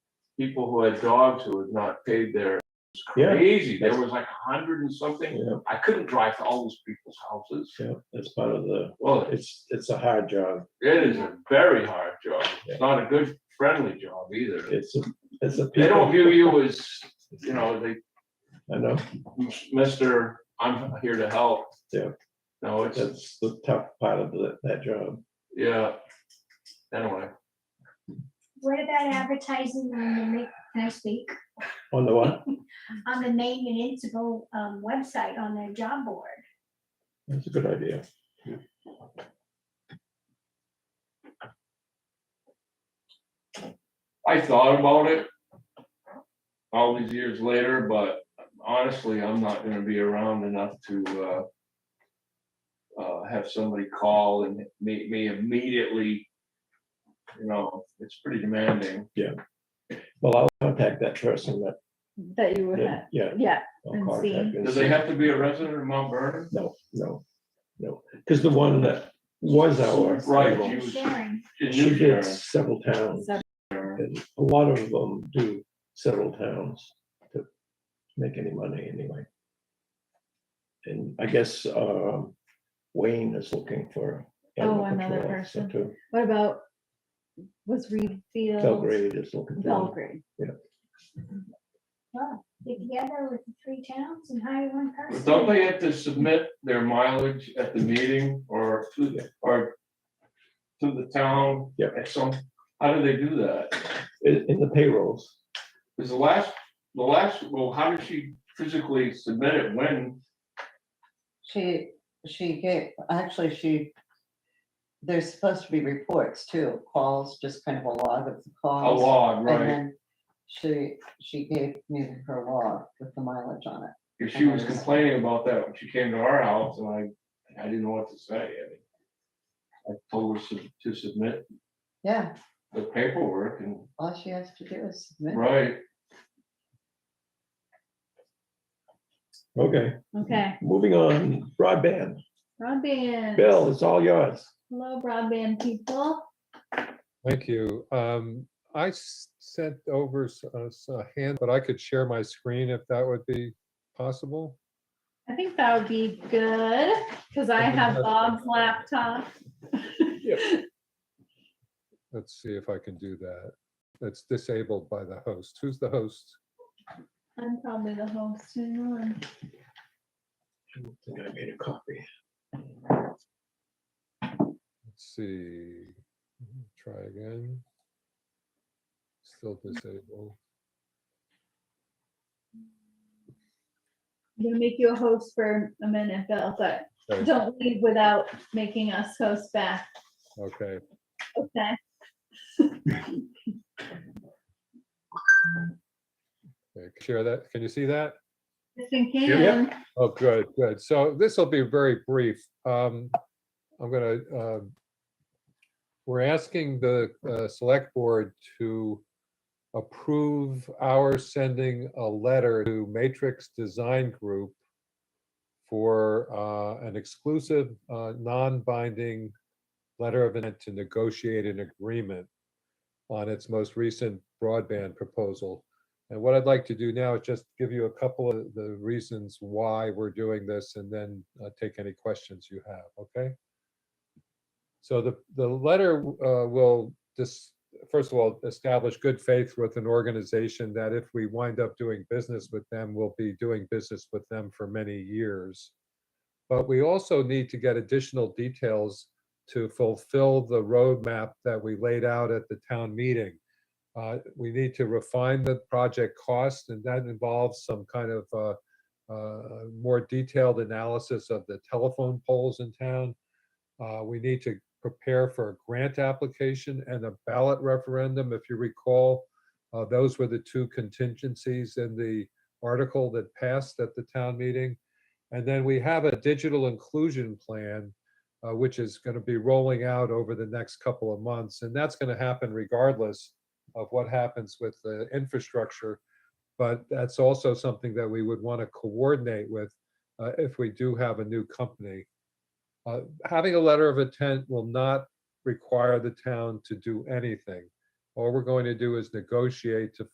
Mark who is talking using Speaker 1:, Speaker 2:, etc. Speaker 1: people who had dogs who had not paid their, it was
Speaker 2: Yeah.
Speaker 1: crazy. There was like a hundred and something.
Speaker 2: Yeah,
Speaker 1: I couldn't drive to all those people's houses.
Speaker 2: yeah, that's part of the,
Speaker 1: Well,
Speaker 2: it's, it's a hard job.
Speaker 1: it is a very hard job. It's not a good friendly job either.
Speaker 2: It's, a it's a.
Speaker 1: They don't
Speaker 2: people-
Speaker 1: view you as, you know, they,
Speaker 2: I know,
Speaker 1: Mister, I'm here to help.
Speaker 2: Yeah.
Speaker 1: No, it's,
Speaker 2: that's the tough part of that, that job.
Speaker 1: yeah. Anyway,
Speaker 3: What about advertising on the, Ma- can I speak,
Speaker 2: On the what?
Speaker 3: on the main municipal um, website on their job board?
Speaker 2: That's a good idea.
Speaker 1: I thought about it all these years later, but honestly, I'm not gonna be around enough to uh, uh, have somebody call and meet me immediately. You know, it's pretty demanding.
Speaker 2: Well, I'll contact that person that,
Speaker 4: That you would have,
Speaker 2: that- yeah.
Speaker 4: yeah,
Speaker 2: I'll
Speaker 4: And
Speaker 2: contact
Speaker 4: see.
Speaker 2: and
Speaker 1: Do
Speaker 2: see.
Speaker 1: they have to be a resident of Mount Vernon?
Speaker 2: No, no, no, because the one that was our.
Speaker 1: Right,
Speaker 2: rival,
Speaker 1: you-
Speaker 3: Sharon,
Speaker 1: In
Speaker 2: She
Speaker 1: New Sharon.
Speaker 2: did several towns,
Speaker 4: so,
Speaker 2: and a lot of them do several towns to make any money anyway. And I guess um, Wayne is looking for. animal
Speaker 4: Oh, another
Speaker 2: control officer
Speaker 4: person.
Speaker 2: too.
Speaker 4: what about, was Reed Field?
Speaker 2: Belgrade is looking for,
Speaker 4: Belgrade.
Speaker 3: get together with the three towns and hire one
Speaker 1: But
Speaker 3: person.
Speaker 1: Don't they have to submit their mileage at the meeting or to, or to the town?
Speaker 2: Yeah.
Speaker 1: At some, how do they do that?
Speaker 2: in, in the payrolls,
Speaker 1: Is the last, the last, well, how did she physically submit it when?
Speaker 5: She, she gave, actually, she, there's supposed to be reports too, calls, just kind of a log of the
Speaker 1: A
Speaker 5: calls.
Speaker 1: log,
Speaker 5: And
Speaker 1: right?
Speaker 5: then she, she gave me her log with the mileage on it.
Speaker 1: If she was complaining about that when she came to our house and I, I didn't know what to say. I mean, I told her to- to submit
Speaker 5: Yeah,
Speaker 1: the paperwork and,
Speaker 5: all she has to do is submit.
Speaker 1: right,
Speaker 2: okay,
Speaker 4: Okay,
Speaker 2: moving on, broadband,
Speaker 4: broadband.
Speaker 2: Bill, it's all yours.
Speaker 4: Hello, broadband people.
Speaker 6: Thank you. Um, I s- sent over s- uh, s- a hand, but I could share my screen if that would be possible.
Speaker 4: I think that would be good, because I have
Speaker 6: That's-
Speaker 4: Bob's laptop.
Speaker 6: Let's see if I can do that. That's disabled by the host. Who's the host?
Speaker 4: I'm probably the host. you know, and-
Speaker 2: I don't think I made a copy.
Speaker 6: Let's see. Mm-hmm. Try again. Still disabled.
Speaker 4: I'm gonna make you a host for a minute, Bill, but
Speaker 6: Okay,
Speaker 4: don't leave without making us host back,
Speaker 6: Okay,
Speaker 4: okay?
Speaker 6: Okay, share that. Can you see that?
Speaker 4: Just in
Speaker 2: Yeah.
Speaker 4: case.
Speaker 6: Oh, good, good. So this will be very brief. Um, I'm gonna, um, we're asking the, uh, select board to approve our sending a letter to Matrix Design Group for, uh, an exclusive, uh, non-binding letter of intent to negotiate an agreement on its most recent broadband proposal. And what I'd like to do now is just give you a couple of the reasons why we're doing this and then uh, take any questions you have, okay? So the, the letter uh, will just, first of all, establish good faith with an organization that if we wind up doing business with them, we'll be doing business with them for many years. But we also need to get additional details to fulfill the roadmap that we laid out at the town meeting. Uh, We need to refine the project cost, and that involves some kind of uh, uh, more detailed analysis of the telephone poles in town. Uh, We need to prepare for a grant application and a ballot referendum. If you recall, uh, those were the two contingencies in the article that passed at the town meeting. And then we have a digital inclusion plan, uh, which is going to be rolling out over the next couple of months, and that's going to happen regardless of what happens with the infrastructure. But that's also something that we would want to coordinate with uh, if we do have a new company. Uh, Having a letter of intent will not require the town to do anything. All we're going to do is negotiate to